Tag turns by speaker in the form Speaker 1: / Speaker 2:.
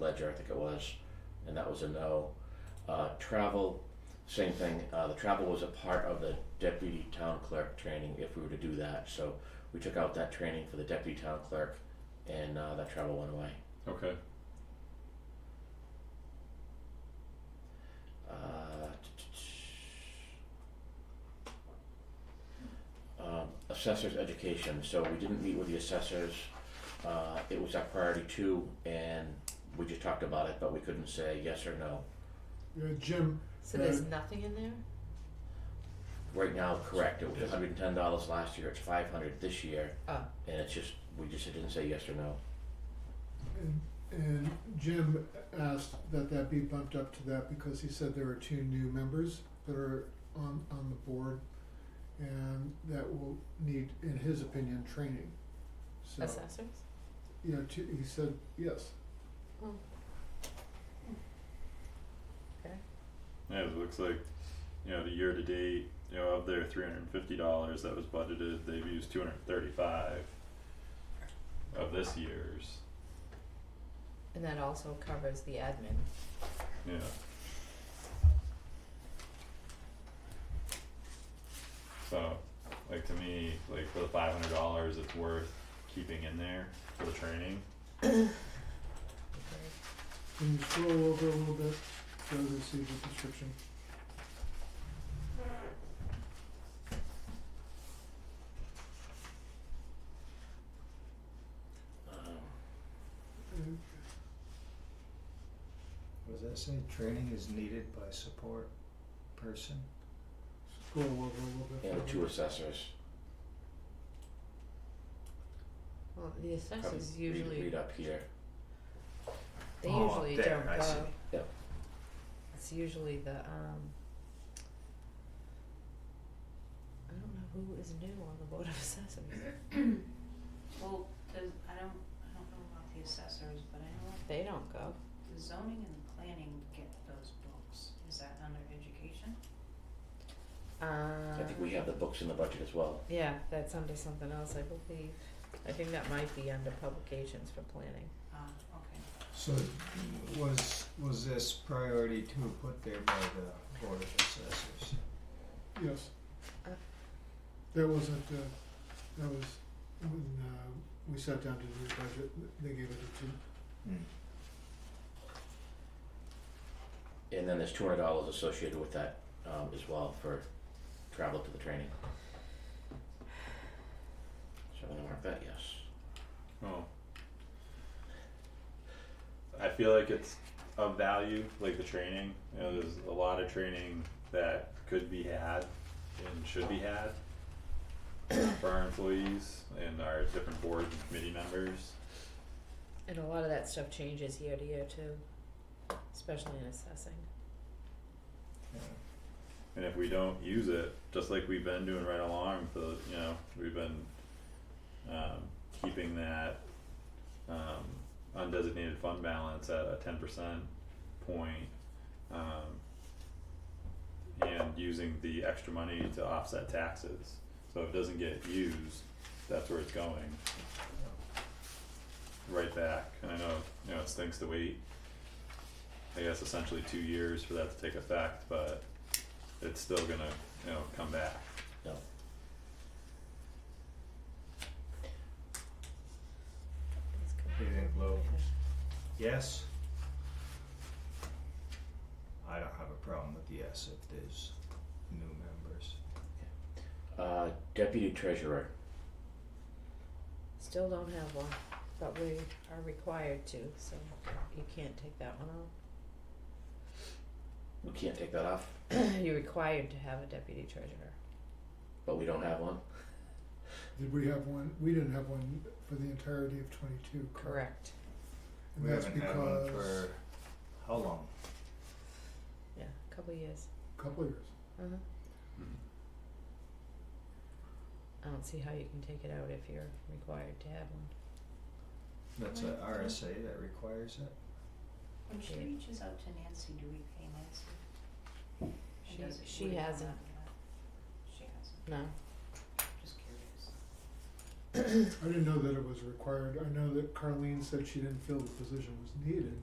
Speaker 1: ledger, I think it was, and that was a no. Uh, travel, same thing, uh, the travel was a part of the deputy town clerk training if we were to do that, so we took out that training for the deputy town clerk and, uh, that travel went away.
Speaker 2: Okay,
Speaker 1: Uh, Um, assessors education, so we didn't meet with the assessors, uh, it was our priority two, and we just talked about it, but we couldn't say yes or no.
Speaker 3: Yeah, Uh, Jim,
Speaker 4: So there's nothing in there?
Speaker 1: Right now, correct, it was hundred and ten dollars last year, it's five hundred this year,
Speaker 4: Oh.
Speaker 1: and it's just, we just didn't say yes or no.
Speaker 3: and, and Jim asked that that be bumped up to that because he said there are two new members that are on, on the board. And that will need, in his opinion, training. So,
Speaker 4: Assessors?
Speaker 3: yeah, two, he said, yes,
Speaker 2: yeah, it looks like, you know, the year to date, you know, of their three hundred and fifty dollars that was budgeted, they've used two hundred and thirty-five of this year's,
Speaker 4: And that also covers the admin.
Speaker 2: yeah. So, like to me, like for the five hundred dollars, it's worth keeping in there for the training,
Speaker 4: Okay.
Speaker 3: can you scroll over a little bit, so to see the description?
Speaker 1: Um,
Speaker 3: Uh,
Speaker 5: What does that say? Training is needed by support person?
Speaker 3: Scroll over a little bit.
Speaker 1: and the two
Speaker 3: further.
Speaker 1: assessors,
Speaker 4: Well, the
Speaker 1: come
Speaker 4: assessors
Speaker 1: read,
Speaker 4: usually,
Speaker 1: read up here,
Speaker 4: they
Speaker 5: Oh,
Speaker 4: usually
Speaker 5: there,
Speaker 4: don't go.
Speaker 5: I see.
Speaker 1: Yep.
Speaker 4: It's usually the, um, I don't know who is new on the board of assessors.
Speaker 6: Well, there's, I don't, I don't know about the assessors, but I know
Speaker 4: They don't go.
Speaker 6: the zoning and the planning get those books, is that under education?
Speaker 1: I
Speaker 4: Um,
Speaker 1: think we have the books in the budget as well,
Speaker 4: yeah, that's under something else, I believe. I think that might be under publications for planning.
Speaker 6: Ah, okay,
Speaker 5: So was, was this priority two put there by the Board of Assessors?
Speaker 3: Yes.
Speaker 4: Uh.
Speaker 3: That wasn't, uh, that was when, uh, we sat down to do the budget, they gave it to,
Speaker 5: Hmm.
Speaker 1: and then there's two hundred dollars associated with that, um, as well for travel to the training. So I'm gonna mark that yes.
Speaker 2: oh. I feel like it's of value, like the training, you know, there's a lot of training that could be had and should be had for our employees and our different board and committee members.
Speaker 4: And a lot of that stuff changes year to year too, especially in assessing.
Speaker 5: Yeah.
Speaker 2: And if we don't use it, just like we've been doing right along for, you know, we've been um keeping that um undesignated fund balance at a ten percent point. Um and using the extra money to offset taxes, so if it doesn't get used, that's where it's going.
Speaker 5: uh,
Speaker 2: Right back, and I know, you know, it stinks to wait. I guess essentially two years for that to take effect, but it's still gonna, you know, come back.
Speaker 1: No.
Speaker 4: It's kind of-
Speaker 5: Do you think low? Yes? I don't have a problem with yes if there's new members.
Speaker 1: Uh, deputy treasurer,
Speaker 4: Still don't have one, but we are required to, so you can't take that one off.
Speaker 1: we can't take that off,
Speaker 4: You're required to have a deputy treasurer.
Speaker 1: but we don't have one.
Speaker 3: did we have one, we didn't have one for the entirety of twenty-two, correct?
Speaker 4: Correct.
Speaker 3: And that's
Speaker 5: We haven't had one
Speaker 3: because,
Speaker 5: for how long?
Speaker 4: Yeah, a couple of years.
Speaker 3: couple of years,
Speaker 4: Uh-huh.
Speaker 2: Hmm.
Speaker 4: I don't see how you can take it out if you're required to have one.
Speaker 5: That's a RSA that requires it?
Speaker 6: when she
Speaker 4: Yeah.
Speaker 6: reaches out to Nancy, do we pay Nancy? And
Speaker 4: She-
Speaker 6: does it-
Speaker 4: she
Speaker 6: would it come
Speaker 4: hasn't.
Speaker 6: out of that? She hasn't,
Speaker 4: No.
Speaker 6: just curious.
Speaker 3: I didn't know that it was required, I know that Carleen said she didn't feel the position was needed,